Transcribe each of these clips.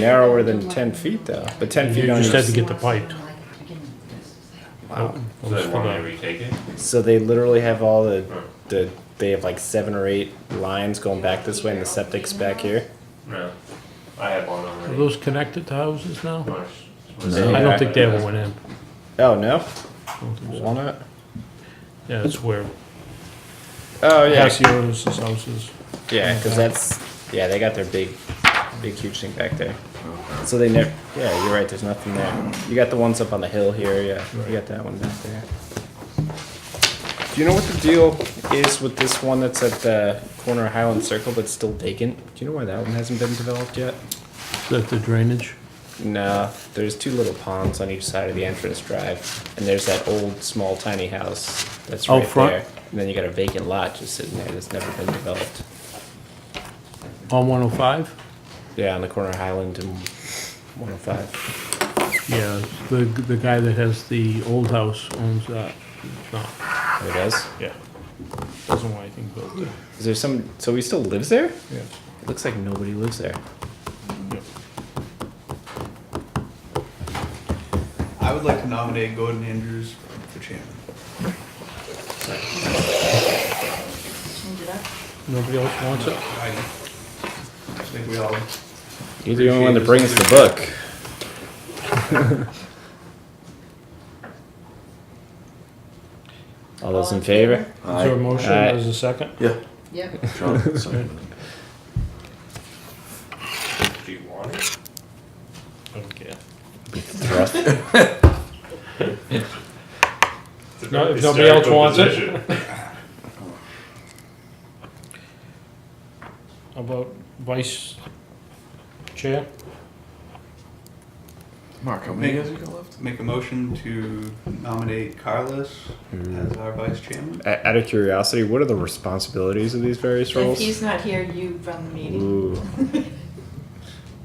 narrower than ten feet though, but ten You feet on just had to each. get the pipe. Um, So they want me to retake it? So they literally have all the, the, they have like seven or eight lines going back this way and the septic's back here. No. I have one Are already. those connected to houses now? You wanna s- wanna I say- don't think they ever went in. Oh, no? Why not? Yeah, it's where Oh, yeah, Cassius's house is. yeah, Mm-hmm. cause that's, yeah, they got their big, big huge thing back there. So they never, yeah, you're right, there's nothing there. You got the ones up on the hill here, yeah, you got that one back there. Do you know what the deal is with this one that's at the corner of Highland Circle that's still vacant? Do you know why that one hasn't been developed yet? Is that the drainage? No, there's two little ponds on each side of the entrance drive, and there's that old small tiny house that's Out right front? there. And then you got a vacant lot just sitting there that's never been developed. On 105? Yeah, on the corner of Highland and 105. Yeah, the, the guy that has the old house owns that. No, Oh, it does. yeah. Doesn't want anything built there. Is there some? So he still lives there? Yeah. It looks like nobody lives there. I would like to nominate Gordon Andrews for chairman. Nobody else wants it? I think we all. You're the only one that Appreciate brings the book. All those in favor? Is there a motion Aye. as a second? Yeah. Yep. John, second. Do you want it? Okay. Thrust. It's a No, very if nobody else hysterical wants it. position. How about vice chair? Mark, how many many guys guys you got left? Make a motion to nominate Carlos as our vice chairman. O- Out of curiosity, what are the responsibilities of these various If roles? he's not here, you run the meeting. Ooh.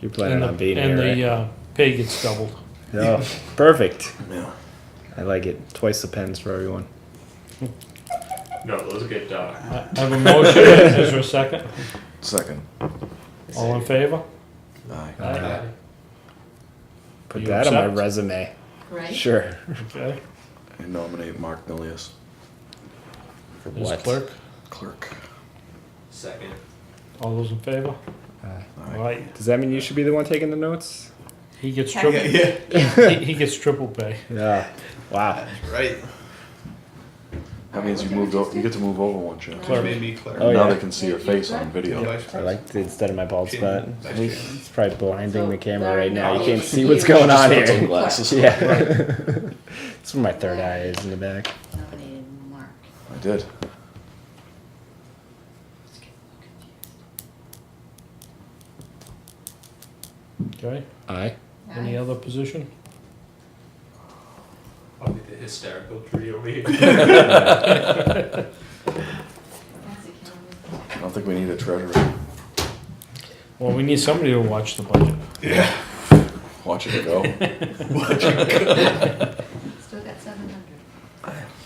You're planning And the- on being And uh, here, the right? uh, pay gets doubled. Yeah. perfect. Yeah. I like it. Twice the pens for everyone. No, those get dark. I I have a motion, is there a second? Second. All in favor? Aye. Uh, Aye. Put You that on my accept? resume. Right? Sure. Okay. And nominate Mark Nilly as For As what? clerk, clerk. Second. all those in favor? Aye. Aye. Aye. Uh, Does that mean you should be the one taking the notes? He gets Yeah. triple, Yeah, he he gets triple pay. Yeah. Wow. that's right. That means you moved over, you get to move over one chair. She made me clerk. Oh, Now yeah. they can see your face on video. I Vice president. like the instead of my bald spot. Chairman, vice chairman. It's probably blinding the camera right now. You can't see You- what's going on Just put some here. Glasses. Yeah. That's where my third eye is in the back. Nominated Mark. I did. Let's get a little confused. Okay, Aye. any Aye. other position? I'll be the hysterical tree over here. That's a calendar. I don't think we need a treasurer. Well, we need somebody to watch the budget. Watch it go. Still got seven hundred.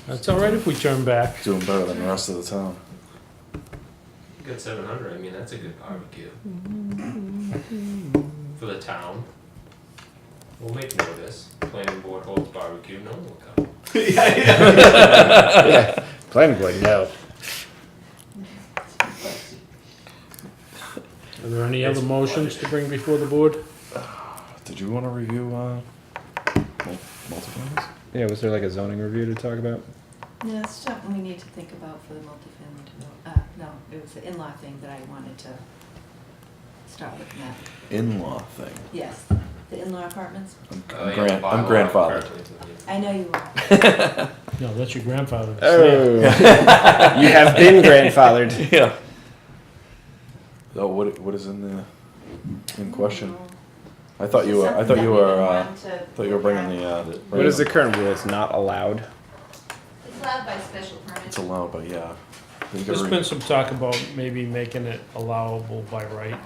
That's all right if we turn back. Doing better than the rest of the town. You Got seven hundred, I mean, that's a good barbecue. For the town. We'll make note of this, planning board holds barbecue, no one will come. Planning board, no. Are there any other motions to bring before the board? Did you want to review, uh, mul- multifamilies? Yeah, was there like a zoning review to talk about? No, it's something we need to think about for the multifamily develop, uh, no, it was the in-law thing that I wanted to start looking at. In-law thing. Yes, the in-law apartments. I'm, Uh, I'm yeah, grand, I'm bylaw grandfathered. currently, yeah. I know you are. No, that's your grandfather. It's there. Oh, you have been grandfathered. Yeah. So what, what is in the, in question? Mm-hmm. I thought you were, I thought you were, uh, I thought you were bringing the, uh. What is the current rule? It's not allowed. It's allowed by special permit. It's allowed, but yeah. I think There's every- been some talk about maybe making it allowable by right. By right.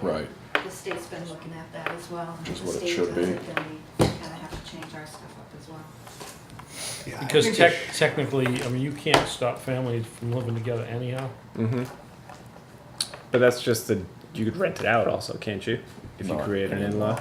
Right. The state's been looking at that as well. and Which is if what the it state should be. does it, Then we kinda have to change our stuff up as well. Yeah, I Because think tech, it technically, I mean, you can't stop families from living together anyhow. Mm-hmm. But that's just the you could rent it out also, can't you? if you Not create an in-law?